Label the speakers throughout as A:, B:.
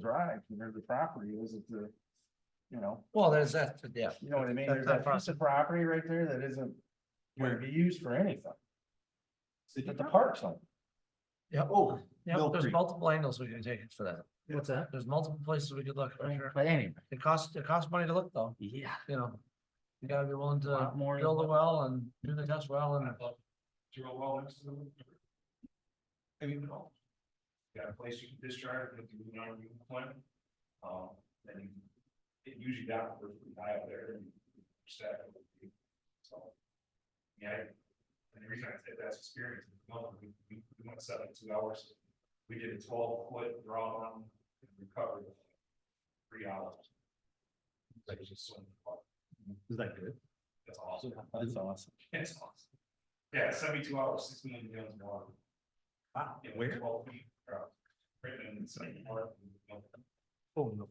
A: drive, to where the property is, it's a, you know,
B: Well, there's that, yeah.
A: you know what I mean? There's
B: That's
A: that
B: not
A: piece of property right there that isn't going to be used for anything,
C: City
A: but the
C: property.
A: park's on.
B: Yep.
C: Oh,
B: Yep,
C: Mill
B: there's
C: Creek.
B: multiple angles we can take it for that.
C: What's
B: that? There's multiple places we could look. for sure.
D: But anyway,
B: It costs, it costs money to look though,
D: yeah.
B: you know. You gotta be willing
D: a
B: to
D: lot more.
B: build a well and do the test well and.
E: Do a well next to them? Have you been all? Got a place you can discharge with the non you plant? Um, then you. It usually got pretty high up there and you stack it. with you. So. Yeah. And the reason I said that's experience, is, well, we, we we went seventy-two hours. We did a twelve foot draw on and recovered. Three hours. Like it's just swimming.
C: Is that good?
E: That's awesome.
A: That's awesome.
E: That's awesome. Yeah, seventy-two hours, six million gallons of water. Wow.
C: Where?
E: Twelve feet. uh, Right in the same part. I
C: Oh, no.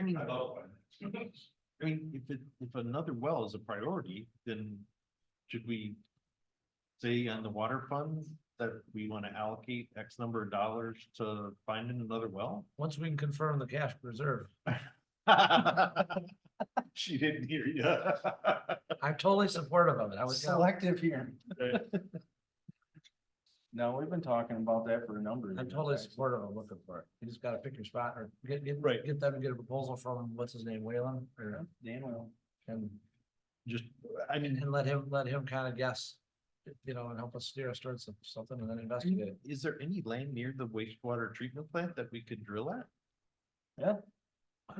C: I mean, I
E: love it.
C: mean, if it, if another well is a priority, then should we say on the water funds that we want to allocate X number of dollars to finding another well?
B: Once we can confirm the cash reserve,
C: She didn't hear you.
B: I'm totally supportive of it. I was, I'm
A: Selective hearing. No, we've been talking about that for a number of years.
B: totally
A: actually.
B: supportive of looking for it. You just gotta pick your spot or get, get,
C: Right.
B: get them to get a proposal from, what's his name, Whalen? Or,
A: Dan will.
B: and,
C: Just, I mean,
B: and let him, let him kind of guess. You know, and help us steer us towards some- something and then investigate it.
C: is there any land near the wastewater treatment plant that we could drill at?
B: I'm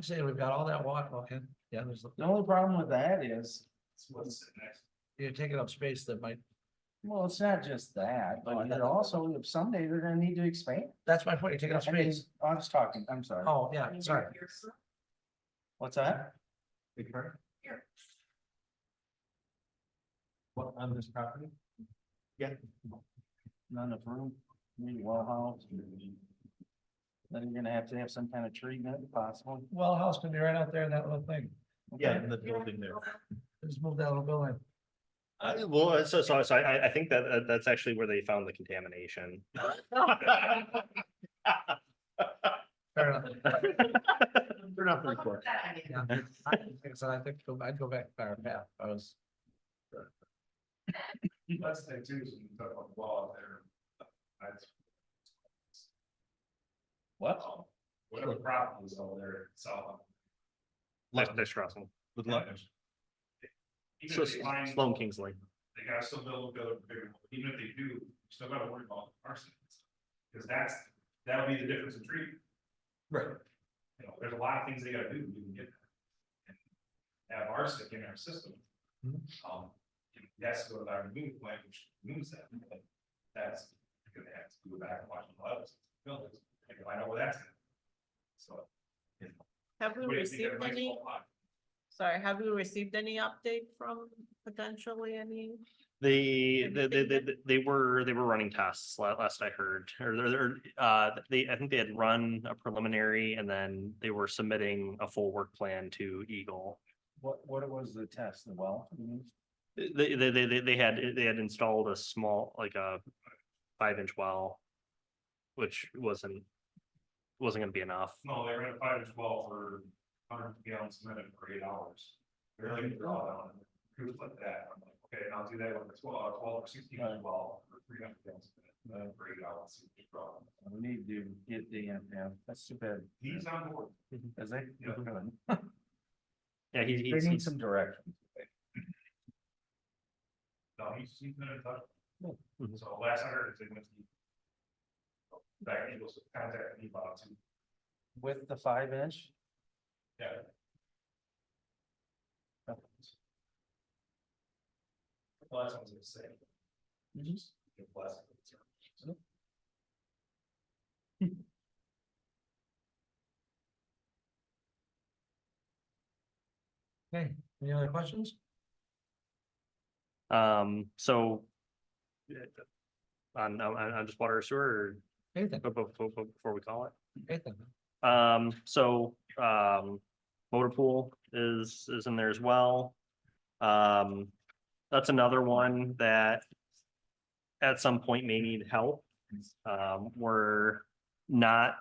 B: saying we've got all that water, okay, yeah, there's,
A: The only problem with that is,
E: It's what's sitting next.
B: you're taking up space that might,
A: well, it's not just that, but it also, someday they're gonna need to expand.
B: that's my point, you're taking up
A: I mean,
B: space.
A: I was talking, I'm sorry.
B: Oh, yeah, sorry.
A: What's that?
C: What, on this property?
A: Not enough room, maybe well house. Then you're gonna have to have some kind of treatment if possible.
B: Well, house can be right out there in that little thing.
C: Yeah,
A: Okay.
C: in the building there.
B: Just move that little building.
F: Uh, well, so, so, so I, I- I think that, uh, that's actually where they found the contamination.
B: Fair enough.
C: They're not very far.
B: Yeah. I- Like I said, I think go- I'd go back by our path. I was,
E: That's the thing too, is when you talk about the law there. that's-
A: What?
E: um, Whatever problem is over there, it's all.
F: Nice, nice, Russell.
C: With luck.
E: Even if
F: So
E: they find-
F: Sloan Kingsley.
E: they gotta still build, build, bigger, one. even if they do, you still gotta worry about arson. Cause that's, that'll be the difference in treatment. Right. You know, there's a lot of things they gotta do to even get that. And Have arsenic in our system. Um, and that's what our new plan, which moves that, but that's, you're gonna have to go back and watch a lot of buildings, and find out where that's. at. So.
G: Have we
E: what do you think
G: received
E: everybody's
G: any,
E: whole lot?
G: sorry, have we received any update from potentially any?
F: They,
G: Have you
F: they, they,
G: seen
F: they,
G: that?
F: they were, they were running tests la- last I heard, or they're, they're, uh, they, I think they had run a preliminary and then they were submitting a full work plan to Eagle.
A: What, what was the test, the well? you mean?
F: They, they, they, they- they had, they had installed a small, like a five inch well, which wasn't, wasn't gonna be enough.
E: No, they ran a five to twelve for hundred gallons a minute for eight hours. They're like, draw down, who's like that, I'm like, okay, and I'll do that with a twelve, twelve or sixteen
A: Right.
E: twelve, or three hundred gallons a minute, uh, for eight hours. it's a problem.
A: We need to get the, yeah, that's too bad.
E: He's on board,
A: Cause they,
E: Yeah.
F: Yeah, he-
A: they
F: he's,
A: need
F: he's,
A: some direction.
E: no, he's, he's been in touch.
F: Cool. Mhm.
E: So last I heard, they went to. Back, he was contacting me about two,
A: With the five inch,
E: yeah. The Last one's the same. The last one's the same.
B: hey, any other questions?
F: um, so. yeah, On, on, on just water or oh, sewer,
B: Anything,
F: or bu- bu- bu- before we call it?
B: anything.
F: Um, so, um, motor pool is, is in there as well. Um, that's another one that at some point may need help. Um, we're not